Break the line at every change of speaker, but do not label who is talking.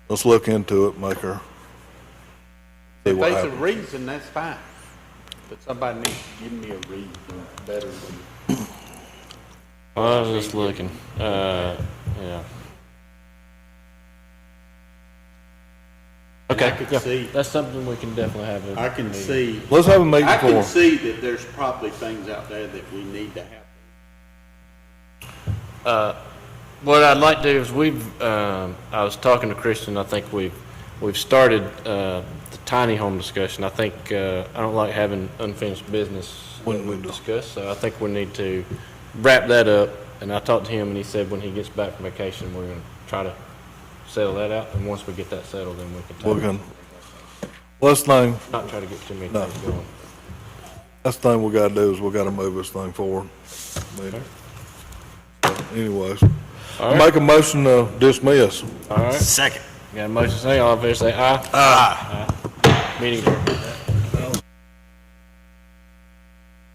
Let's look into it, make her. See
If
what
there's a
happens.
reason, that's fine, but somebody needs to give me a reason better than.
Well, I was just looking. Uh, yeah. Okay.
I could
yeah.
see-
That's something we can definitely have. at
I
the
can
meeting.
see,
Let's have a meeting
I
for
can
her.
see that there's probably things out there that we need to have.
What I'd like to do is we've, um, I was talking to Kristen, I think we've, we've started uh, the tiny home discussion. I think, uh, I don't like having unfinished business
Wouldn't
when we've
we know?
discussed, so I think we need to wrap that up. And I talked to him and he said when he gets back from vacation, we're gonna try to settle that out. And once we get that settled, then we can
We
talk,
can, last thing,
not try to get too many
No.
things going.
last thing we gotta do is we gotta move this thing forward. I mean, Anyways,
All right,
make a motion to dismiss.
all right.
Second.
Got a motion, say all in favor, say aye. Aye. Meeting adjourned.